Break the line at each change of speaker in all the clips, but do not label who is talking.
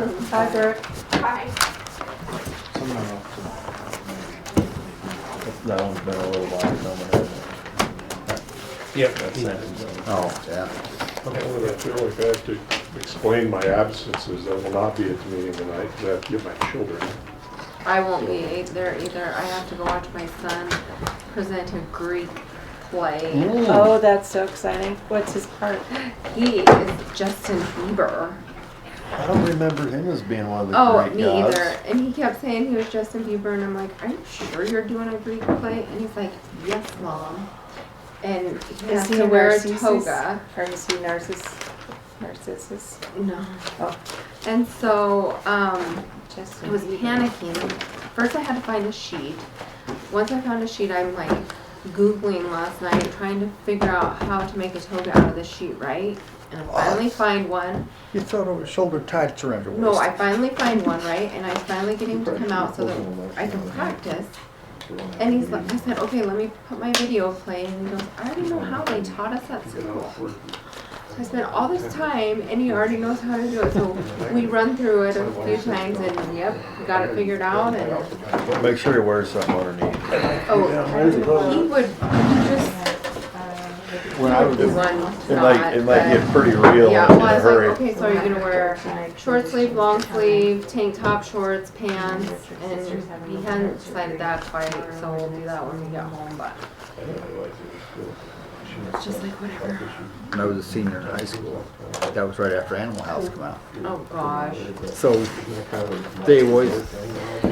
Hi, Brett.
That one's been a little while coming, hasn't
Yep.
it? Oh, yeah.
And I feel like I have to explain my absences. I will not be at the meeting tonight because I have to get my children.
I won't be ei- there either. I have to go watch my son present a Greek play.
Oh, that's so exciting. What's his part?
He is Justin Bieber.
I don't remember him as being one of the
Oh,
great
me
guys.
either. And he kept saying he was Justin Bieber, and I'm like, Are you sure you're doing a Greek play? And he's like, Yes, mom. And he has to wear a
Narcissus?
toga.
Or is he Narcissus? Narcissus?
No.
Oh.
And so, um,
Just
I was panicking. First, I had to find a sheet. Once I found a sheet, I'm like Googling last night, trying to figure out how to make a toga out of the sheet, right? And I finally find one.
You thought it was shoulder tights around your
No,
waist.
I finally find one, right? And I finally get him to come out so that I can practice. And he's like, I said, okay, let me put my video playing. And he goes, I already know how they taught us at school. I spent all this time and he already knows how to do it. So we run through it a few times and yep, got it figured out and.
Make sure he wears something underneath.
Oh, he would just
When I was,
do
it
one
might,
knot,
it might get
but-
pretty real in
Yeah,
a
well, I was like,
hurry.
okay, so are you gonna wear short sleeve, long sleeve, tank top, shorts, pants? And he hadn't decided that quite, so we'll do that when we get home, but it's just like whatever.
When I was a senior in high school, that was right after Animal House came out.
Oh, gosh.
So they always,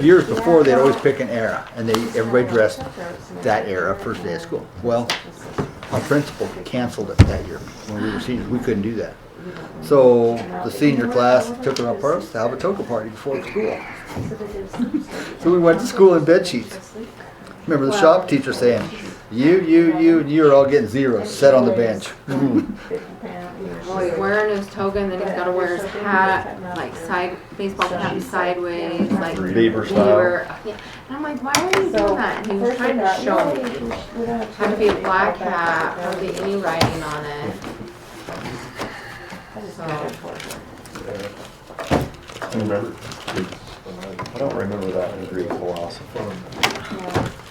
years before, they'd always pick an era, and they, everybody dressed that era first day of school. Well, our principal canceled it that year when we were seniors. We couldn't do that. So the senior class took it on purpose to have a toga party before school. So we went to school in bed sheets. Remember the shop teacher saying, "You, you, you, and you are all getting zeros. Sit on the bench."
Well, he's wearing his toga and then he's gotta wear his hat, like side, baseball cap sideways, like.
Bieber
he
style.
were- yeah. And I'm like, why are you doing that? And he was trying to show me. Had to be a black hat, hardly any writing on it. So,
I don't remember that in Greek philosophy.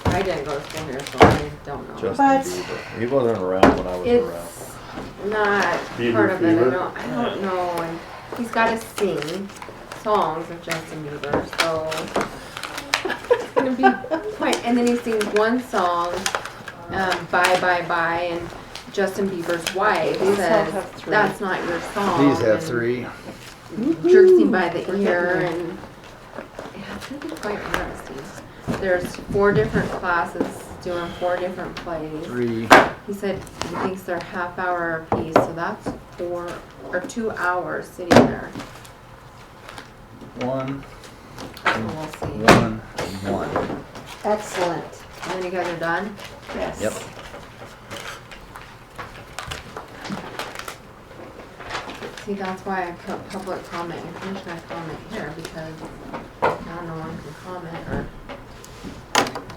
I didn't go to school here, so I don't know.
Justin
But-
Bieber. He wasn't around when I was around.
It's not
Bieber
part of it, I
fever?
don't, I don't know, and he's gotta sing songs of Justin Bieber, so. It's gonna be quite, and then he sings one song, um, Bye Bye Bye, and Justin Bieber's wife
all
says,
have three.
that's not your song.
These have
and-
three.
jerks him by the ear and yeah, it's gonna be quite interesting. There's four different classes doing four different plays.
Three.
He said he thinks they're half hour apiece, so that's four or two hours sitting there.
One,
So we'll Oh, see.
one, and one.
Excellent.
And then you guys are done?
Yes.
Yep.
See, that's why I put public comment and commissioner comment here because now no one can comment or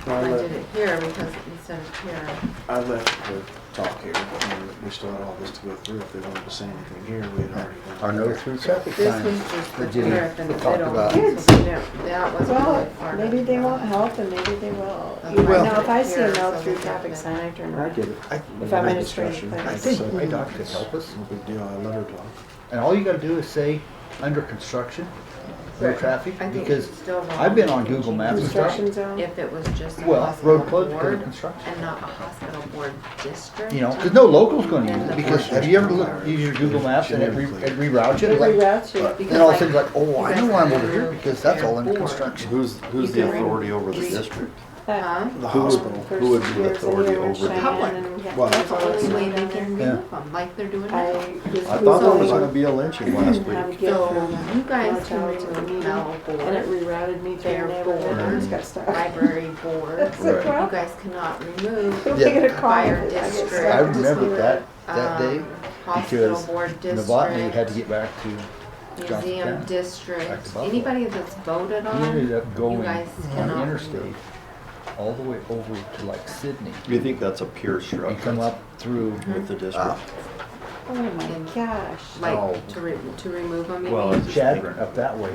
I
uh,
did it here because instead of here.
I left the talk here, but we were- we still had all this to go through. If they wanted to say anything here, we had already. done
Our
it.
no through traffic
This
signs.
was just the
Virginia
tariff in the
talked
middle.
about.
Good.
So we don't- That wasn't really
Well,
part of
maybe they
it.
won't help and maybe they will.
Well-
You know, if I see a no
Here,
through
so-
traffic sign, I turn
I
around.
get it. I,
If I'm in a
Discussion.
strange
I
I
place.
think my doctor could help us.
No big deal. I let her talk.
And all you gotta do is say, under construction, no
Right.
traffic,
I think
because
it's still wrong.
I've been on Google Maps and stuff.
Construction zone.
If it was just a
Well, road
hospital
closed because of
board
construction.
and not a hospital board district.
You know, cause no local's gonna use it, because have you ever looked, use your Google Maps and it re- it reroutes you?
It
Like,
reroutes you.
Because
And all of a sudden,
like,
like, oh, I know why I'm over here,
because
because that's all under
they're bored.
construction.
Who's, who's the authority over the district?
That-
Huh?
The
Who would-
hospital.
first
who would be the
years in
authority
here,
over
Cheyenne,
Public.
and we had-
Well,
That's the only way they can
Yeah.
remove them, like they're
I
doing now.
just
I thought there was
Googled
gonna be a lynching last
and
week.
how to get
So
from
you guys
hotel
can
to a
remove
meeting,
Mel
And it
board,
rerouted me to
Their
their neighborhood. I
board.
just got stuck.
library board.
It's like,
Right.
You
well,
guys cannot remove
Who am I
Yeah.
gonna call?
Fire
I get
district.
stuck.
I
Just
remember
leave
that,
it.
that day,
um, hospital
because
board
Novotny had to
district,
get back to, Johnson
museum
County, back
district,
to Buffalo.
anybody that's voted
he ended
on.
up going
Um, guys
on
cannot
the interstate all the way over to like Sydney.
You think that's a pure
And come
structure
Mm-hmm.
up through
with the district?
Oh my gosh.
like
Oh.
to re- to remove them. you
Well,
mean?
it's-
Chad, up that way.